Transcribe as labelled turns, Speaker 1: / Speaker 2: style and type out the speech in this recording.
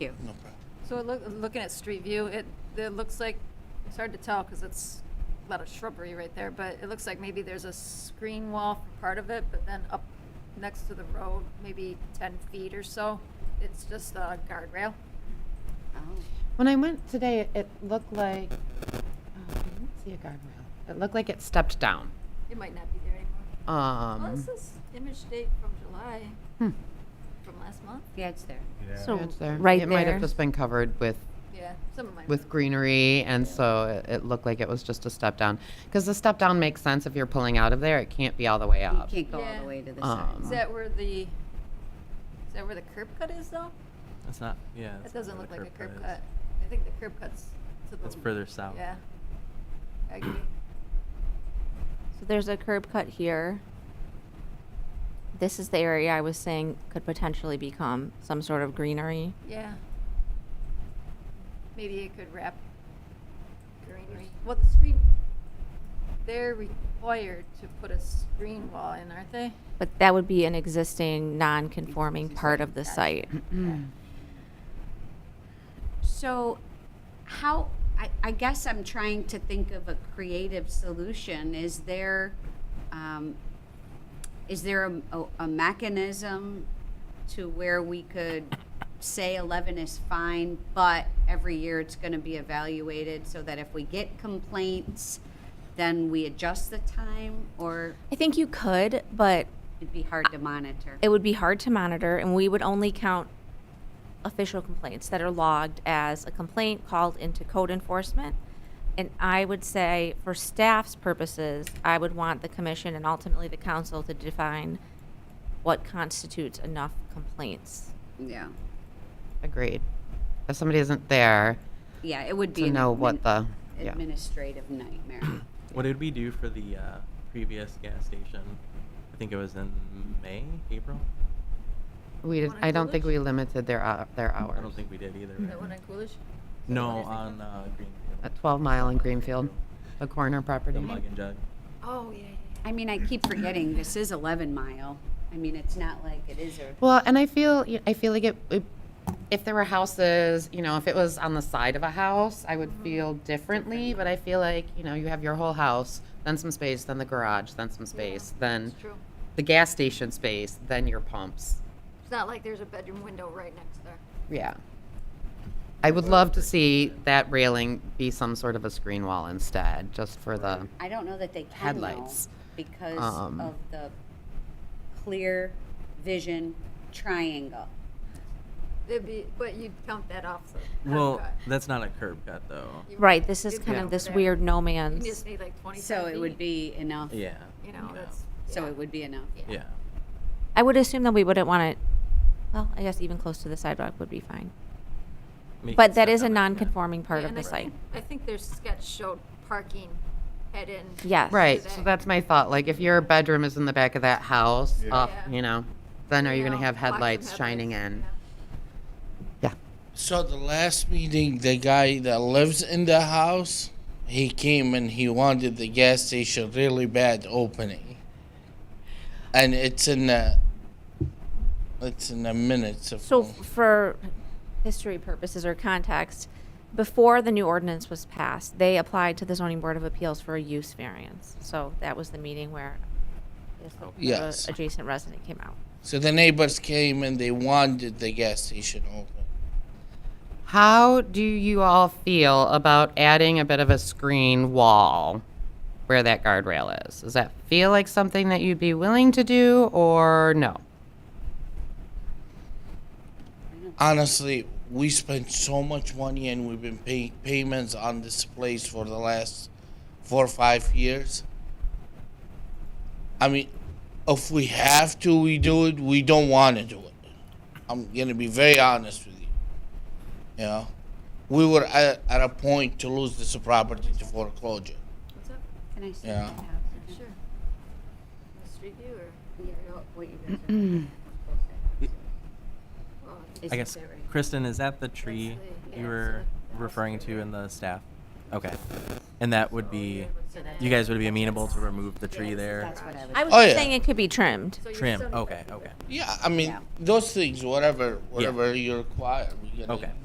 Speaker 1: you.
Speaker 2: No problem.
Speaker 1: So look, looking at street view, it, it looks like, it's hard to tell because it's a lot of shrubbery right there, but it looks like maybe there's a screen wall for part of it, but then up next to the road, maybe ten feet or so, it's just a guardrail.
Speaker 3: Oh,
Speaker 4: When I went today, it, it looked like, oh, I didn't see a guardrail. It looked like it stepped down.
Speaker 1: It might not be there anymore. Well,
Speaker 4: Um,
Speaker 1: this is image date from July,
Speaker 4: hmm,
Speaker 1: from last month.
Speaker 3: Yeah, it's there.
Speaker 5: So
Speaker 4: it's there.
Speaker 5: right
Speaker 4: It might
Speaker 5: there.
Speaker 4: have just been covered with,
Speaker 1: Yeah, some of mine.
Speaker 4: with greenery, and so it, it looked like it was just a step down. Because the step down makes sense if you're pulling out of there, it can't be all the way
Speaker 3: You
Speaker 4: up.
Speaker 3: can't go all
Speaker 1: Yeah.
Speaker 3: the way to the side.
Speaker 4: Um,
Speaker 1: Is that where the, is that where the curb cut is though?
Speaker 6: That's not, yeah.
Speaker 1: That
Speaker 6: that's
Speaker 1: doesn't
Speaker 6: not
Speaker 1: look
Speaker 6: where
Speaker 1: like a
Speaker 6: the
Speaker 1: curb
Speaker 6: is.
Speaker 1: cut. I think the curb cut's to the.
Speaker 6: That's further south.
Speaker 1: Yeah. I agree.
Speaker 5: So there's a curb cut here. This is the area I was saying could potentially become some sort of greenery.
Speaker 1: Yeah. Maybe it could wrap greenery. Well, the screen, they're required to put a screen wall in, aren't they?
Speaker 5: But that would be an existing non-conforming part of the site. hmm.
Speaker 3: So how, I, I guess I'm trying to think of a creative solution. Is there, um, is there a, a- a mechanism to where we could say eleven is fine, but every year it's gonna be evaluated so that if we get complaints, then we adjust the time or
Speaker 5: I think you could, but
Speaker 3: it'd be hard to monitor?
Speaker 5: it would be hard to monitor and we would only count official complaints that are logged as a complaint called into code enforcement. And I would say for staff's purposes, I would want the commission and ultimately the council to define what constitutes enough complaints.
Speaker 3: Yeah,
Speaker 4: Agreed. If somebody isn't there
Speaker 3: yeah, it would be.
Speaker 4: to
Speaker 3: an
Speaker 4: know what
Speaker 3: admin-
Speaker 4: the, yeah.
Speaker 3: Administrative nightmare.
Speaker 6: What did we do for the uh, previous gas station? I think it was in May, April.
Speaker 4: We, did-
Speaker 1: Wanna
Speaker 4: I
Speaker 1: do
Speaker 4: don't think
Speaker 1: it?
Speaker 4: we limited their, hou- their hours.
Speaker 6: I don't think we did either.
Speaker 1: That
Speaker 6: right?
Speaker 1: one on Coolidge?
Speaker 6: No,
Speaker 1: Is that what you're
Speaker 6: on uh, Greenfield.
Speaker 4: At 12 Mile in Greenfield, the corner property.
Speaker 6: The mug and jug.
Speaker 1: Oh, yeah, yeah, yeah.
Speaker 3: I mean, I keep forgetting this is 11 mile. I mean, it's not like it is a.
Speaker 4: Well, and I feel I feel like it, it- if there were houses, you know, if it was on the side of a house, I would feel differently. But I feel like you know, you have your whole house, then some space, then the garage, then some space, then
Speaker 1: It's true.
Speaker 4: the gas station space, then your pumps.
Speaker 1: It's not like there's a bedroom window right next there.
Speaker 4: Yeah. I would love to see that railing be some sort of a screen wall instead, just for the.
Speaker 3: I don't know that they can.
Speaker 4: Headlights.
Speaker 3: though, Because
Speaker 4: Um,
Speaker 3: of the clear vision triangle.
Speaker 1: It'd be, but you'd count that off, so.
Speaker 6: Well, that's not a curb cut though.
Speaker 5: Right, this is
Speaker 1: You'd
Speaker 5: kind
Speaker 1: count
Speaker 5: of this
Speaker 1: that.
Speaker 5: weird no
Speaker 1: You
Speaker 5: man's.
Speaker 1: just need like twenty-five
Speaker 3: So it would
Speaker 1: feet,
Speaker 3: be enough.
Speaker 6: Yeah.
Speaker 1: You know,
Speaker 6: yeah.
Speaker 1: that's.
Speaker 3: So
Speaker 1: yeah.
Speaker 3: it would be enough.
Speaker 6: Yeah.
Speaker 5: I would assume that we wouldn't want it, well, I guess even close to the sidewalk would be fine.
Speaker 6: Make it
Speaker 5: But that
Speaker 6: step
Speaker 5: is a
Speaker 6: down like that.
Speaker 5: non-conforming part
Speaker 1: Yeah,
Speaker 5: of
Speaker 1: and
Speaker 5: the
Speaker 1: I think-
Speaker 5: site.
Speaker 1: I think their sketch showed parking head in.
Speaker 5: Yes.
Speaker 4: Right,
Speaker 1: Today.
Speaker 4: so that's my thought. Like, if your bedroom is in the back of that house,
Speaker 7: Yeah.
Speaker 4: up,
Speaker 1: Yeah.
Speaker 4: you know, then are you going
Speaker 1: know,
Speaker 4: to have
Speaker 1: block some
Speaker 4: headlights shining
Speaker 1: headlights,
Speaker 4: in?
Speaker 1: yeah.
Speaker 4: Yeah.
Speaker 2: So the last meeting, the guy that lives in the house, he came and he wanted the gas station really bad opening, and it's in the it's in the minutes of.
Speaker 5: So f- for history purposes or context, before the new ordinance was passed, they applied to the zoning board of appeals for a use variance. So that was the meeting where I guess the- the
Speaker 2: Yes.
Speaker 5: adjacent resident came out.
Speaker 2: so the neighbors came and they wanted the gas station open.
Speaker 4: How do you all feel about adding a bit of a screen wall where that guardrail is? Does that feel like something that you'd be willing to do or no?
Speaker 2: Honestly, we spent so much money and we've been paying payments on this place for the last four or five years. I mean, if we have to, we do it. We don't want to do it. I'm gonna be very honest with you. You know, we were at, at a point to lose this property to foreclosure.
Speaker 1: What's up?
Speaker 3: Can I see?
Speaker 2: Yeah.
Speaker 3: that house?
Speaker 1: Sure. Street view or?
Speaker 3: Yeah, what you guys are-
Speaker 1: oh, it's-
Speaker 3: Is
Speaker 6: I guess,
Speaker 3: that right?
Speaker 6: Kristen, is that the tree
Speaker 1: the- yeah,
Speaker 6: you were
Speaker 1: it's the house
Speaker 6: referring
Speaker 1: right
Speaker 6: to in the staff? Okay. And that would be, you guys would be amenable to remove the tree there.
Speaker 3: That's what I was.
Speaker 5: I was
Speaker 2: Oh,
Speaker 5: just
Speaker 2: yeah.
Speaker 5: saying it could be trimmed.
Speaker 1: So you're
Speaker 6: Trim.
Speaker 1: still-
Speaker 6: Okay. Okay.
Speaker 2: Yeah, I mean
Speaker 3: Yeah.
Speaker 2: those things, whatever, whatever you require. We can
Speaker 6: Okay.